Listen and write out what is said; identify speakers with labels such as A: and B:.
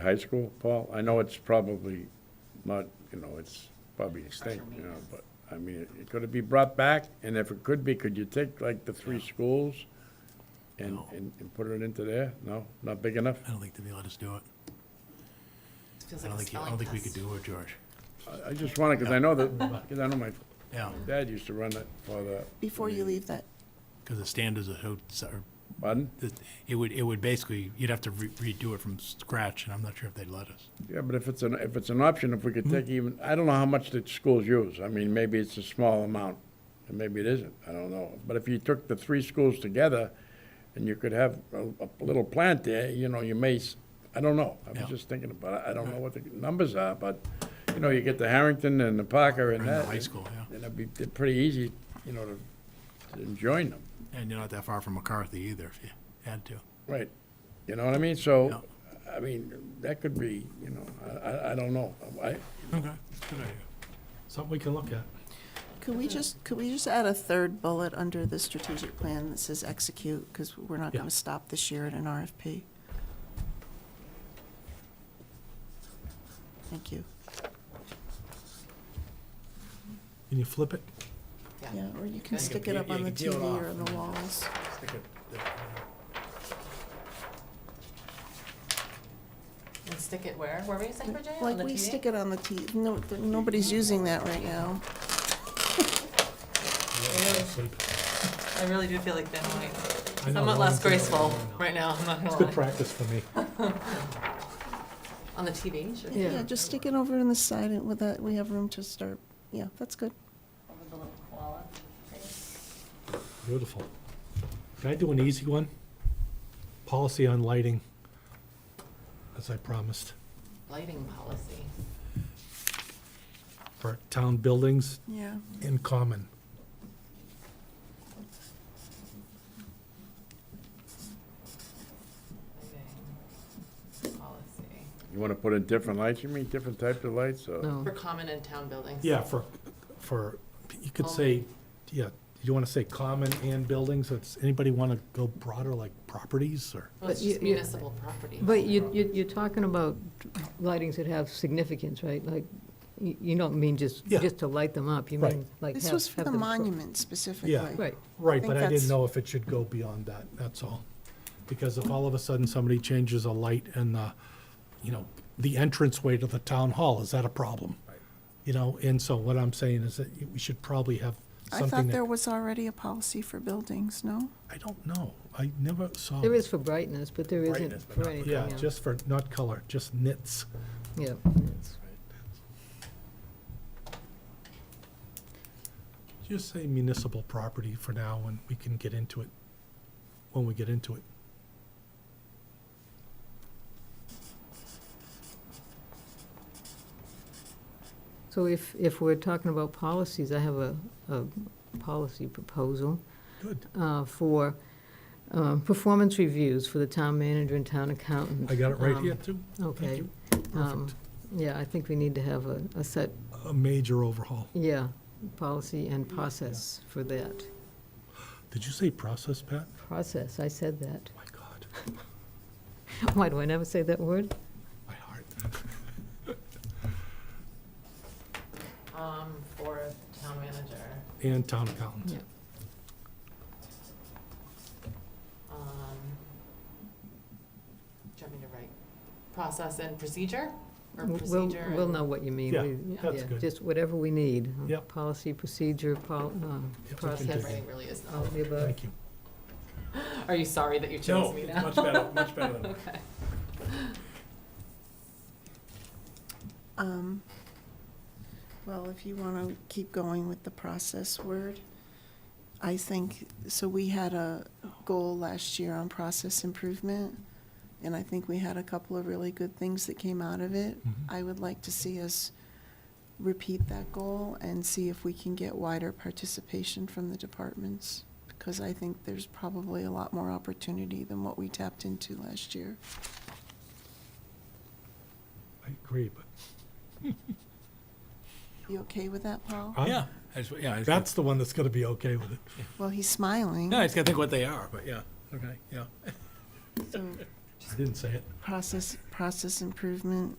A: high school, Paul? I know it's probably not, you know, it's probably extinct, you know, but, I mean, it- it could it be brought back? And if it could be, could you take like the three schools and, and, and put it into there? No, not big enough?
B: I don't think they'd let us do it.
C: Feels
B: I
C: like
B: don't
C: a
B: think, you- I don't
C: spelling
B: think we could
C: test.
B: do it, George.
A: I, I just wanna, cause I know that, cause I know my
B: Yeah,
A: dad used to run it for the,
D: Before you leave that,
B: because the standards are so- so, are-
A: pardon?
B: that- it would, it would basically, you'd have to re- redo it from scratch, and I'm not sure if they'd let us.
A: Yeah, but if it's an, if it's an option, if we
B: Hmm.
A: could take even, I don't know how much the schools use. I mean, maybe it's a small amount, and maybe it isn't, I don't know. But if you took the three schools together, and you could have a, a little plant there, you know, you may, s- I don't know. I
B: Yeah.
A: was just thinking about it, I don't know what the numbers are, but, you know, you get the Harrington and the Parker and
B: And the
A: that.
B: high school, yeah.
A: And it'd be they're pretty easy, you know, to to join them,
B: And you're not that far from McCarthy either, if you had to.
A: right? You know what I mean? So, I mean, that could be, you know, I, I, I don't know. I,
B: Okay, good idea.
E: Something we can look at.
D: could we just, could we just add a third bullet under the strategic plan that says execute? Because we're not going
E: Yeah.
D: to stop this year at an RFP. Thank you.
E: Can you flip it?
D: Yeah, or you can
B: You
D: stick
B: can-
D: it
B: you-
D: up
B: you
D: on the
B: can peel it
D: TV or
B: off.
D: on the walls.
B: Stick it there.
C: And stick it where? Where were you saying, Virginia?
D: Like, we stick it on the T, no, th- nobody's using that right now.
E: Oh,
C: I really do feel like Ben White.
E: I know,
C: Somewhat
E: no
C: less
E: one's doing it
C: graceful
E: right now.
C: right now, I'm not
E: It's good
C: gonna lie.
E: practice for me.
C: On the TV, sure.
D: Yeah, just stick it over on the side and with that, we have room to start. Yeah, that's good.
E: Beautiful. Can I do an easy one? Policy on lighting, as I promised,
C: Lighting policy.
E: for town buildings
D: Yeah.
E: in common.
C: Lighting Policy.
A: You want to put in different lights, you mean different types of lights, or?
C: For common and town buildings.
E: Yeah, for, for, you could say, yeah, you want to say common and buildings, so it's, anybody want to go broader, like properties, or?
C: Well, it's
F: But you-
C: just
F: you-
C: municipal property.
F: But you, you- you're talking about lightings that have significance, right? Like, you you don't mean just,
E: Yeah.
F: just to light them up, you
E: Right.
F: mean like have...
D: This was for
F: have
D: the
F: them-
D: monument specifically.
F: Right,
E: Right,
D: think
E: but I didn't
D: that's-
E: know if it should go beyond that, that's all. Because if all of a sudden somebody changes a light in the, you know, the entranceway to the town hall, is that a problem? You know, and so what I'm saying is that we should probably have
D: I thought
E: something
D: there
E: that,
D: was already a policy for buildings, no?
E: I don't know, I never saw.
F: there is for brightness, but there isn't
B: Brightness, but
F: for
B: not-
F: anything
E: Yeah,
F: else.
E: just for, not color, just nits.
F: Yeah, it's-
E: Just say municipal property for now, and we can get into it, when we get into it.
F: So if, if we're talking about policies, I have a, a policy proposal
E: Good,
F: uh, for um, performance reviews for the town manager and town accountant.
E: I got it right
F: Um,
E: here too,
F: Okay.
E: you.
F: Um,
E: perfect.
F: Yeah, I think we need to have a, a set,
E: A major overhaul.
F: yeah, policy and process for that.
E: Did you say process, Pat?
F: Process, I said that.
E: My God,
F: Why do I never say that word?
E: my heart.
C: Um, for the town manager,
E: And town accountant.
F: Yeah.
C: um, do you want me to write process and procedure? Or
F: We'll-
C: procedure and?
F: We'll know what you mean.
E: Yeah,
F: We-
E: that's
F: yeah,
E: good.
F: Just whatever we need. uh,
E: Yep.
F: Policy, procedure, pol, uh,
E: Yep, we can do
F: process,
C: Handwriting really is
F: all
C: not.
F: of the above.
E: Thank you.
C: Are you sorry that you chose me now?
A: better, much better than.
C: Okay.
D: Um, Well, if you want to keep going with the process word, I think, so we had a goal last year on process improvement, and I think we had a couple of really good things that came out of it.
E: Mhm.
D: I would like to see us repeat that goal and see if we can get wider participation from the departments, because I think there's probably a lot more opportunity than what we tapped into last year.
E: I agree, but.
D: You okay with that, Paul?
E: I'm-
B: Yeah, I just- yeah. I just-
E: That's the one that's gonna be okay with it.
D: Well, he's smiling.
B: No, I just gotta think what they are, but yeah, okay, yeah.
D: so-
E: I didn't say it.
D: Process, process improvement